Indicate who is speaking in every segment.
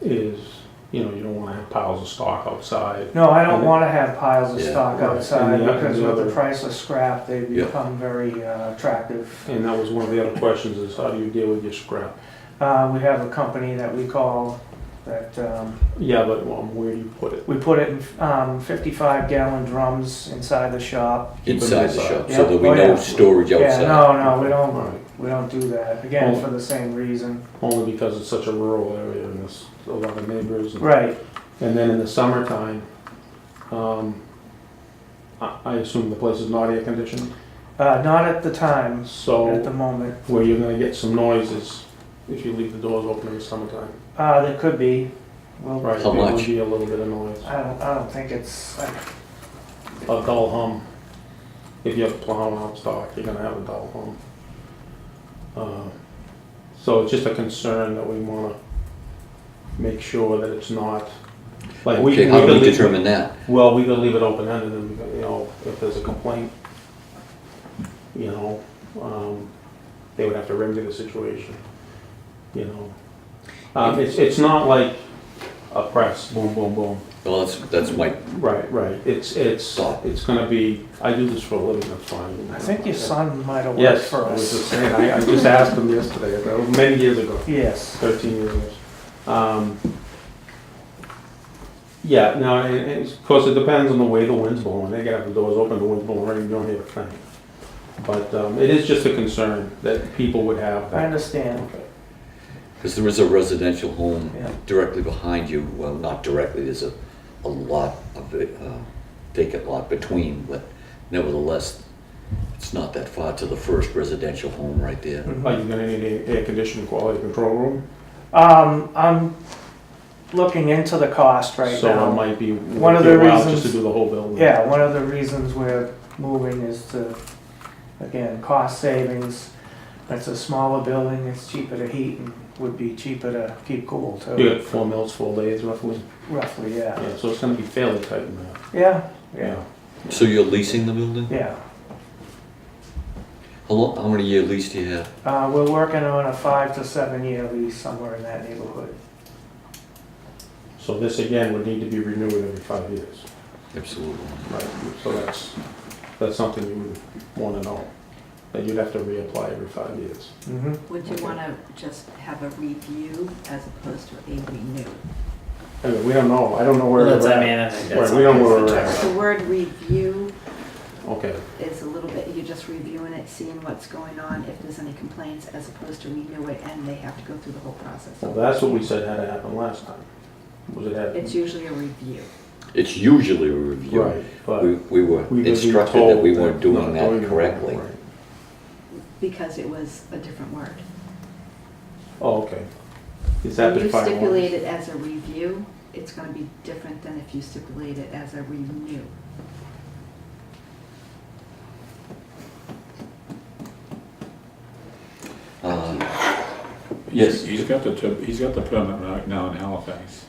Speaker 1: is, you know, you don't wanna have piles of stock outside.
Speaker 2: No, I don't wanna have piles of
Speaker 3: Yeah,
Speaker 2: stock
Speaker 1: right.
Speaker 2: outside,
Speaker 1: And the-
Speaker 2: because
Speaker 1: the
Speaker 2: with the
Speaker 1: other-
Speaker 2: price of scrap, they
Speaker 3: Yeah.
Speaker 2: become very uh, attractive.
Speaker 1: And that was one of the other questions is how do you deal with your scrap?
Speaker 2: Uh, we have a company that we call, that, um,
Speaker 1: Yeah, but um, where do you put it?
Speaker 2: we put it in, um, fifty-five gallon drums inside the shop.
Speaker 1: Keep them
Speaker 3: inside the
Speaker 1: inside.
Speaker 3: shop,
Speaker 2: Yeah.
Speaker 3: so there'll be
Speaker 2: Oh,
Speaker 3: no
Speaker 2: yeah.
Speaker 3: storage
Speaker 2: Yeah,
Speaker 3: outside.
Speaker 2: no, no, we don't,
Speaker 1: Right.
Speaker 2: we don't do that, again,
Speaker 1: Well-
Speaker 2: for the same reason.
Speaker 1: Only because it's such a rural area and there's a lot of neighbors. and-
Speaker 2: Right,
Speaker 1: And then in the summertime, um, I, I assume the place is not air conditioned,
Speaker 2: uh, not at the time, at the
Speaker 1: so
Speaker 2: moment.
Speaker 1: where you're gonna get some noises if you leave the doors open in the summertime.
Speaker 2: Uh, there could be, well,
Speaker 1: Right,
Speaker 3: How
Speaker 1: there
Speaker 3: much?
Speaker 1: would be a little bit of noise,
Speaker 2: I don't, I don't think it's, I
Speaker 1: a dull hum. If you have plowing out stock, you're gonna have a dull hum. Uh, So it's just a concern that we wanna make sure that it's not, like, we, we
Speaker 3: Okay, how
Speaker 1: could
Speaker 3: do we
Speaker 1: leave,
Speaker 3: determine that?
Speaker 1: Well, we could leave it open-ended, and, you know, if there's a complaint, you know, um, they would have to remedy the situation, you know. Um, it's, it's not like a press, boom, boom, boom.
Speaker 3: Well, that's, that's my,
Speaker 1: Right, right, it's, it's,
Speaker 3: Stop.
Speaker 1: it's gonna be, I do this for a living, that's fine.
Speaker 2: I think your son might have worked
Speaker 1: Yes,
Speaker 2: for
Speaker 1: I was
Speaker 2: us.
Speaker 1: just saying, I, I just asked him yesterday, that was many years ago.
Speaker 2: Yes,
Speaker 1: 13 years. Um, yeah, now, and, and of course, it depends on the way the wind's blowing. They gotta have the doors open, the wind's blowing, right, you don't hear a thing. But, um, it is just a concern that people would have.
Speaker 2: I
Speaker 1: that-
Speaker 2: understand,
Speaker 1: Okay.
Speaker 3: because there is a residential home
Speaker 2: yeah.
Speaker 3: directly behind you, well, not directly, there's a, a lot of, uh, vacant lot between, but nevertheless, it's not that far to the first residential home right there.
Speaker 2: Mm-hmm.
Speaker 1: Are you gonna need a air conditioning quality control room?
Speaker 2: Um, I'm looking into the cost right
Speaker 1: So it
Speaker 2: now.
Speaker 1: might be,
Speaker 2: One
Speaker 1: one
Speaker 2: of
Speaker 1: of the
Speaker 2: the
Speaker 1: while just to
Speaker 2: reasons-
Speaker 1: do the whole building.
Speaker 2: Yeah, one of the reasons we're moving is to, again, cost savings. It's a smaller building, it's cheaper to heat and would be cheaper to keep cool
Speaker 1: You
Speaker 2: too,
Speaker 1: got four mills, four lathes roughly.
Speaker 2: roughly, yeah.
Speaker 1: Yeah, so it's gonna be fairly tight in there.
Speaker 2: Yeah, yeah,
Speaker 3: So you're leasing the building?
Speaker 2: yeah.
Speaker 3: How long, how many year lease do you have?
Speaker 2: Uh, we're working on a five to seven year lease somewhere in that neighborhood.
Speaker 1: So this again would need to be renewed every five years.
Speaker 3: Absolutely.
Speaker 1: Right, so that's, that's something you would wanna know, that you'd have to reapply every five years.
Speaker 2: Mm-hmm.
Speaker 4: Would you want to just have a review as opposed to a renew?
Speaker 1: I mean, we don't know, I don't know where
Speaker 5: Well,
Speaker 1: we're
Speaker 5: that's, I
Speaker 1: at.
Speaker 5: mean, I think that's.
Speaker 1: Right, we don't
Speaker 5: obvious
Speaker 1: wanna-
Speaker 5: in
Speaker 4: The word review
Speaker 1: Okay,
Speaker 4: is a little bit, you're just reviewing it, seeing what's going on, if there's any complaints, as opposed to renew it and they have to go through the whole
Speaker 1: well,
Speaker 4: process.
Speaker 1: that's what we said had to happen last time, was it
Speaker 4: It's
Speaker 1: happened?
Speaker 4: usually a review.
Speaker 3: It's usually a review.
Speaker 1: Right, but.
Speaker 3: We, we were
Speaker 1: we would be
Speaker 3: instructed that we
Speaker 1: told
Speaker 3: weren't
Speaker 1: not
Speaker 3: doing that
Speaker 1: it
Speaker 3: correctly.
Speaker 1: right.
Speaker 4: Because it was a different word.
Speaker 1: Oh, okay. Is that
Speaker 4: When
Speaker 1: the
Speaker 4: you
Speaker 1: final one?
Speaker 4: stipulate it as a review, it's going to be different than if you stipulate it as a renew.
Speaker 3: Uh, Yes.
Speaker 6: He's- He's got the, tip- he's got the permit right now in Halifax,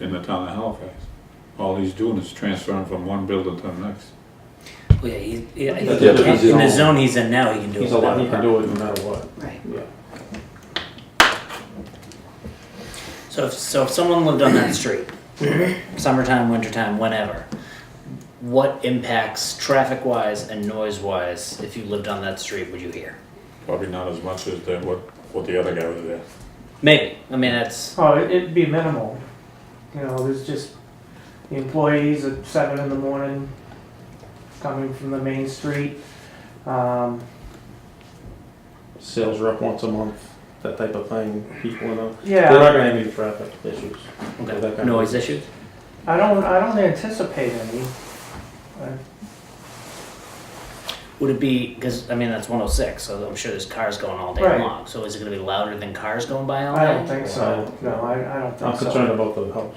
Speaker 6: in the town of Halifax. All he's doing is transferring from one building to the next.
Speaker 5: there. Well, Oh, yeah, he- yeah, I
Speaker 1: That's
Speaker 5: think
Speaker 3: Yeah, but he's
Speaker 5: in- in the
Speaker 1: in-
Speaker 5: zone he's in now, he can do it.
Speaker 1: He's allowed, he
Speaker 5: without
Speaker 1: can
Speaker 5: a
Speaker 1: do it no matter what,
Speaker 4: Right.
Speaker 1: yeah.
Speaker 5: permit. So if, so if someone lived on that street, summertime, wintertime, whenever, what impacts traffic-wise and noise-wise, if you lived on that street, would you hear?
Speaker 6: Probably not as much as the, what, what the other guy was there.
Speaker 5: Maybe, I mean, that's,
Speaker 2: Oh, it- it'd be minimal. You know, there's just the employees at seven in the morning coming from the main street. Um,
Speaker 1: Sales rep once a month, that type of thing, people, you know, they're
Speaker 2: yeah,
Speaker 1: not gonna have any traffic issues. That kind
Speaker 5: okay,
Speaker 1: of-
Speaker 5: noise issues?
Speaker 2: I don't, I don't anticipate any. I-
Speaker 5: Would it be, because, I mean, that's one oh six, so I'm sure there's cars going all day
Speaker 2: Right.
Speaker 5: long, so is it gonna be louder than cars going by all
Speaker 2: I don't
Speaker 5: day?
Speaker 2: think so. No, I, I don't
Speaker 1: I'm
Speaker 2: think
Speaker 1: concerned
Speaker 2: so.
Speaker 1: about the house.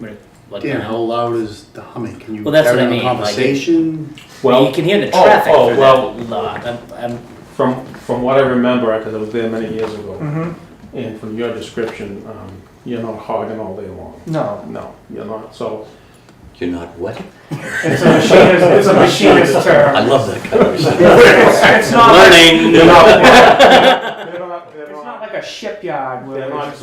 Speaker 5: Like, you
Speaker 7: Dan,
Speaker 5: know?
Speaker 7: how loud is the humming? Can you
Speaker 5: Well, that's
Speaker 7: carry
Speaker 5: what I
Speaker 7: on a
Speaker 5: mean, like, it-
Speaker 7: Conversation?
Speaker 5: Well,
Speaker 1: Well,
Speaker 5: you can hear the
Speaker 1: oh,
Speaker 5: traffic
Speaker 1: oh,
Speaker 5: for
Speaker 1: well-
Speaker 5: that lot. I'm, I'm,
Speaker 1: from, from what I remember, because I was there many years ago,
Speaker 2: hmm
Speaker 1: And from your description, um, you're not hogging all day long.
Speaker 2: no.
Speaker 1: No, you're not. So
Speaker 3: You're not what?
Speaker 2: It's a machinist, it's a machinist
Speaker 3: I
Speaker 2: term.
Speaker 3: love that conversation.
Speaker 2: It's it's not,
Speaker 1: they're not. They're not.
Speaker 2: it's not like a shipyard where
Speaker 1: They're
Speaker 2: it's
Speaker 1: not